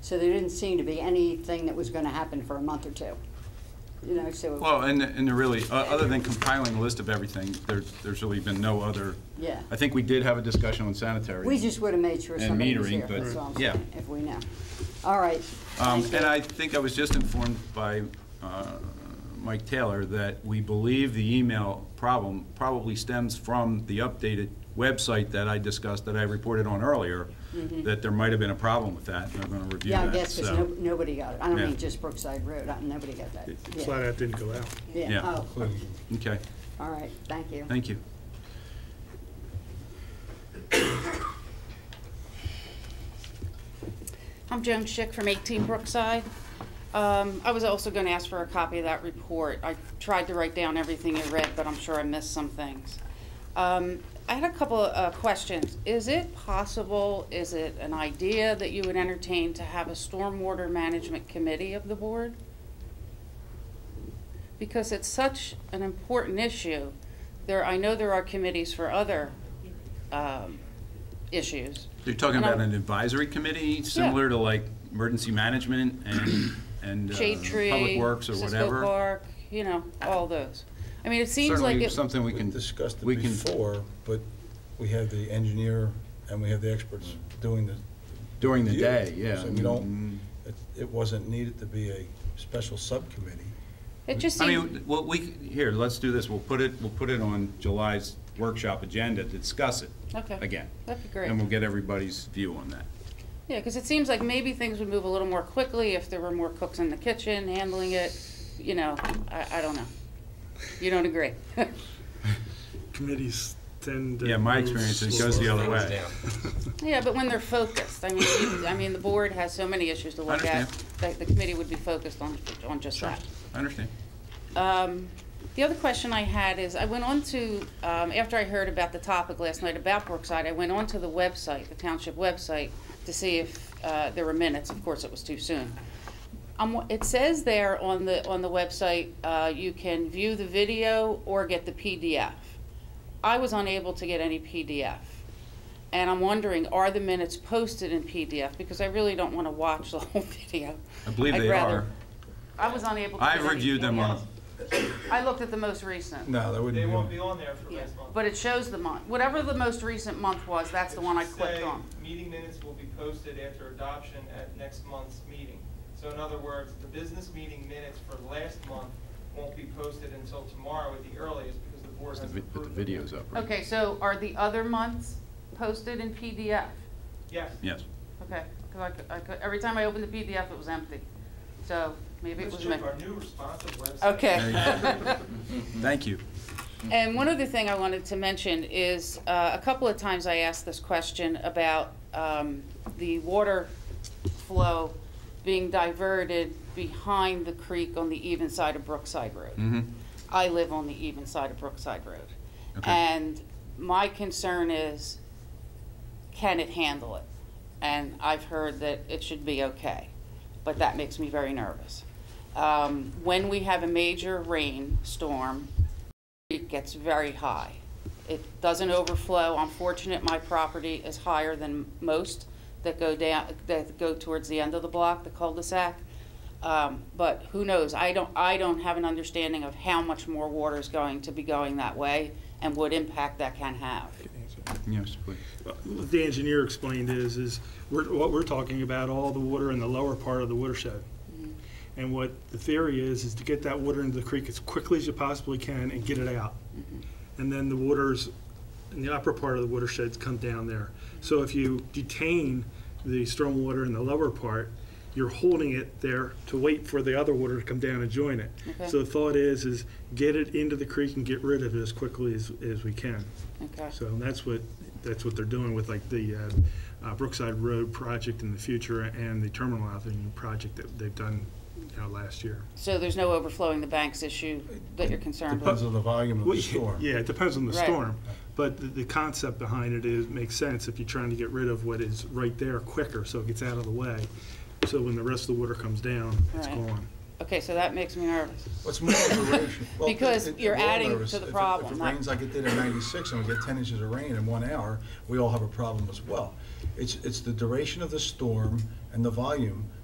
So there didn't seem to be anything that was going to happen for a month or two. You know, so, Well, and, and there really, o- other than compiling a list of everything, there's, there's really been no other. Yeah. I think we did have a discussion on sanitary. we just would have made sure And somebody was metering, here, but- that's all I'm yeah. saying, if we know. All right. Um, Thank And you. I think I was just informed by uh, Mike Taylor that we believe the email problem probably stems from the updated website that I discussed, that I reported on earlier, that there might have been a problem with that, and I'm going to review Mm-hmm. Yeah, that. I guess, because so- nobody got it. I don't Yeah. mean just Brookside Road, I- nobody got that. Yeah. Flat out didn't go out. Yeah. Yeah, oh, Okay, all right, thank you. thank you. I'm Joan Schick from 18 Brookside. Um, I was also going to ask for a copy of that report. I tried to write down everything I read, but I'm sure I missed some things. Um, I had a couple of uh, questions. Is it possible, is it an idea that you would entertain to have a stormwater management committee of the board? Because it's such an important issue. There, I know there are committees for other um, issues. You're talking And I- about an advisory committee, similar to like emergency management and, and uh, shade tree, public works or Cisco whatever. Park, you know, all those. I mean, it seems like Certainly it, something we We can. discussed it we can- before, but we have the engineer and we have the experts doing the. During the review. day, yeah. Mm-hmm. So we don't, it, it wasn't needed to be a special subcommittee. it just I seems, mean, well, we, here, let's do this, we'll put it, we'll put it on July's workshop agenda, to discuss it. Okay. Again. that'd be And we'll great. get everybody's view on that. Yeah, because it seems like maybe things would move a little more quickly if there were more cooks in the kitchen handling it, you know, I, I don't know. You don't agree? Committees tend to. Yeah, my move experience, it slower. goes the other way. Yeah, but when they're focused, I mean, you- I mean, the board has so many issues to look at, understand. that the committee would be focused on, on just that. I understand. Um, the other question I had is, I went on to, um, after I heard about the topic last night about Brookside, I went on to the website, the township website, to see if, uh, there were minutes. Of course, it was too soon. Um, it says there on the, on the website, uh, you can view the video or get the PDF. I was unable to get any PDF. And I'm wondering, are the minutes posted in PDF? Because I really don't wanna watch the whole video. I believe I'd they rather- are. I was unable to. I've get any reviewed them on, PDF. I looked at the most recent, No, that They wouldn't won't be, be on there for next month. but it shows the month, whatever the most recent month was, that's the one I It should clicked say, on. Meeting minutes will be posted after adoption at next month's meeting. So in other words, the business meeting minutes for last month won't be posted until tomorrow at the earliest because the board hasn't approved. put the them. videos up, right? Okay, so are the other months posted in PDF? Yes. Yes. Okay, because I could, I could, every time I opened the PDF, it was empty, so maybe it was Let's me. check our new responsive website. Okay. Mm-hmm. Thank you. And one other thing I wanted to mention is, uh, a couple of times I asked this question about, um, the water flow being diverted behind the creek on the even side of Brookside Road. hmm I live on the even side of Brookside Road. Okay. And my concern is, can it handle it? And I've heard that it should be okay, but that makes me very nervous. Um, when we have a major rainstorm, it gets very high. It doesn't overflow. I'm fortunate my property is higher than most that go down, that go towards the end of the block, the cul-de-sac. Um, but who knows? I don't, I don't have an understanding of how much more water is going to be going that way and what impact that can have. Yes, please. What the engineer explained is, is we're, what we're talking about, all the water in the lower part of the watershed. And what the theory is, is to get that water into the creek as quickly as you possibly can and get it out. And then the waters in the upper part of the watersheds come down there. So if you detain the stormwater in the lower part, you're holding it there to wait for the other water to come down and join it. Okay. So the thought is, is get it into the creek and get rid of it as quickly as, as we can. Okay. So that's what, that's what they're doing with like the uh, uh, Brookside Road project in the future and the terminal avenue project that they've done, you know, last year. So there's no overflowing the banks issue that you're concerned depends with? on the volume of Well, the storm. Yeah, it depends on the Right. storm, but the, the concept behind it is, makes sense if you're trying to get rid of what is right there quicker, so it gets out of the way. So when the rest of the water comes down, it's Right. gone. Okay, so that makes me nervous. What's more of a ratio? well, Because it- it- you're we're all adding nervous. to the If it- problem, If it not- rains like it did in ninety-six and we get ten inches of rain in one hour, we all have a problem as well. It's, it's the duration of the storm and the volume